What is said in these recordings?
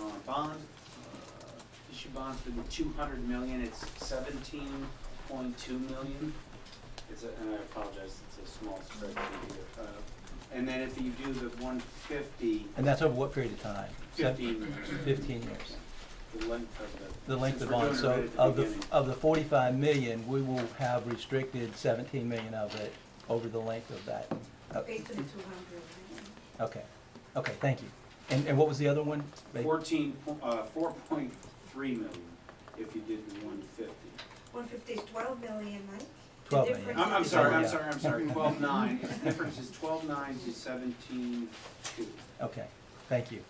uh, bond, uh, issue bond for the two hundred million, it's seventeen point two million. It's a, and I apologize, it's a small spreadsheet here. Uh, And then if you do the one fifty, And that's over what period of time? Sev- fifteen years. Fifteen years, The length of the. the length of since the we're bond. doing it right So at of the, uh, beginning. of the forty-five million, we will have restricted seventeen million of it over the length of that. Uh, Based on the two hundred, right? Okay, okay, thank you. And, and what was the other one? They- Fourteen, po- uh, four point three million if you did the one fifty. One fifty is twelve million, right? The 12 million. difference I'm, I'm is- sorry, I'm Yeah. sorry, I'm sorry, twelve nine, the difference is twelve nine to seventeen two. Okay, thank you.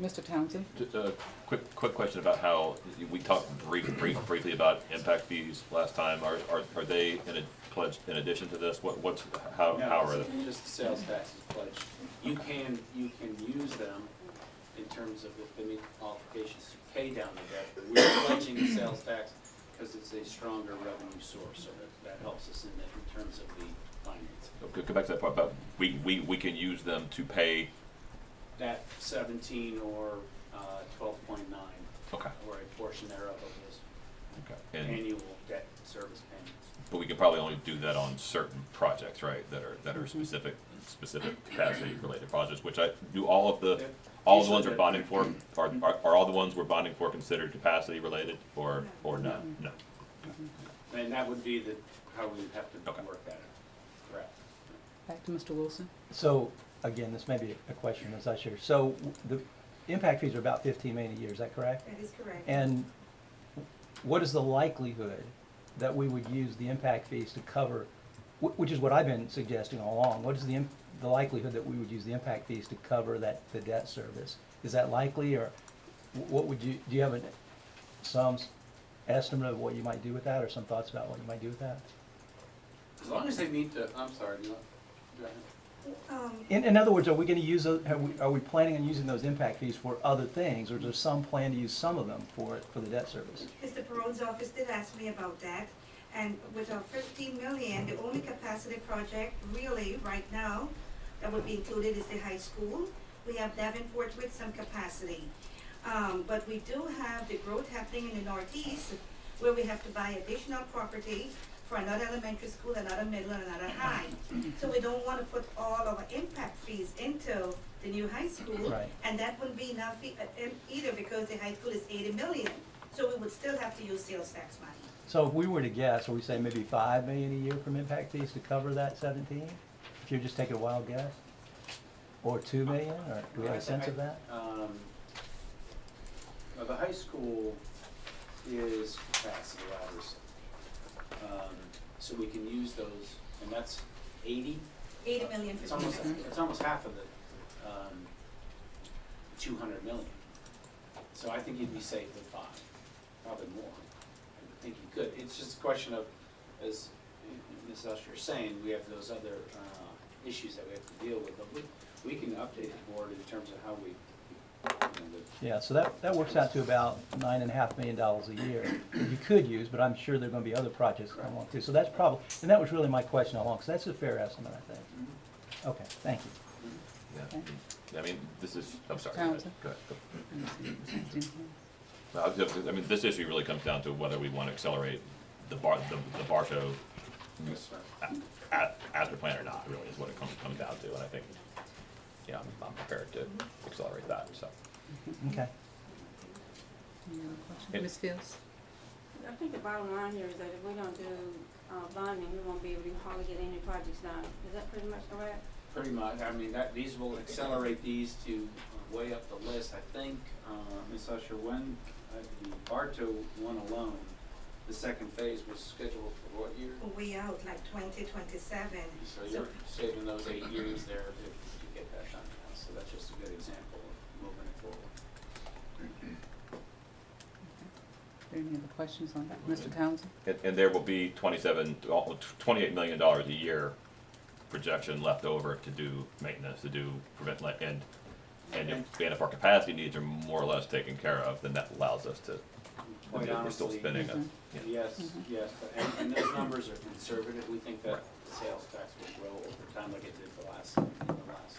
Mr. Townsend? Just a uh, quick, quick question about how, we talked brief, brief, briefly about impact fees last time. Are, are, are they in a pledge, in addition to this? What, what's, how, how are they? Just the sales taxes pledged. You can, you can use them in terms of if they meet qualifications to pay down the debt. but We're pledging the sales tax because it's a stronger revenue source, so that, that helps us in, that- in terms of the finance. Go, go back to that part about, we, we, we can use them to pay, That seventeen or, uh, twelve point nine, okay, or a portion thereof of okay. those And, annual debt service payments. but we can probably only do that on certain projects, right, that are, that are specific, specific capacity-related projects, which I, do all of the, They're all the ones usually we're bonding for, are, are, are all the ones we're bonding for considered capacity-related, or, or not? No. And that would be the, how we would have Okay. to work that out. Correct. Back to Mr. Wilson. So, again, this may be a question as I share. So w- the impact fees are about fifteen million a year, is that correct? That is correct. And what is the likelihood that we would use the impact fees to cover, wh- which is what I've been suggesting all along, what is the, im- the likelihood that we would use the impact fees to cover that, the debt service? Is that likely, or wh- what would you, do you have an- some s- estimate of what you might do with that, or some thoughts about what you might do with that? As long as they meet the, I'm sorry, no, go ahead. Um, In, in other words, are we gonna use, tho- have we, are we planning on using those impact fees for other things, or is there some plan to use some of them for, for the debt service? Mr. Perone's office did ask me about that, and with our fifteen million, the only capacity project really right now that would be included is the high school. We have Davenport with some capacity. Um, but we do have the growth happening in the northeast where we have to buy additional property for another elementary school, another middle, and another high. So we don't wanna put all our impact fees into the new high school. Right. And that wouldn't be enough e- uh, um, either because the high school is eighty million, so we would still have to use sales tax money. So if we were to guess, would we say maybe five million a year from impact fees to cover that seventeen? If you're just taking a wild guess? Or two million, or do we have a sense of that? Um, well, the high school is capacity, obviously. Um, so we can use those, and that's eighty, Eighty million it's for almost, teachers. it's almost half of the, um, two hundred million. So I think you'd be safe with five, probably more. I think you could. It's just a question of, as Ms. Usher is saying, we have those other, uh, issues that we have to deal with. But we, we can update the board in terms of how we, you know, the Yeah, so that, that works out to about nine and a half million dollars a year that you could use, but I'm sure there're gonna be other projects that come along too. So that's probably, and that was really my question all along, so that's a fair estimate, I think. Okay, thank you. Yeah. I mean, this is, I'm sorry. go ahead. Townsend? Go ahead. Go. Mr. No, I was just- I mean, this issue really comes down to whether we want to accelerate the bar, the, the Barco Yes, sir. a- a- master plan or not, really, is what it comes, comes down to, and I think, yeah, I'm, I'm prepared to accelerate that, so. Okay. Any other questions? Ms. Fields? I think the bottom line here is that if we don't do, uh, bonding, we won't be able to hardly get any projects done. Is that pretty much correct? Pretty much, I mean, that, these will accelerate these to way up the list, I think, uh, Ms. Usher, when, uh, the Bartow one alone, the second phase was scheduled for what year? Way out, like twenty twenty-seven. So you're saving those eight years there to to get that done now, so that's just a good example of moving it forward. Any other questions on that? Mr. Townsend? And, and there will be twenty-seven, al- twenty-eight million dollars a year projection left over to do maintenance, to do prevent, like, and, and if, and if our capacity needs are more or less taken care of, then that allows us to, Quite we're still honestly, spending a, Mhm. yeah. Yes, Mhm. yes, but- and, and those numbers are conservative, we think that Right. the sales tax will grow over time like it did the last, the last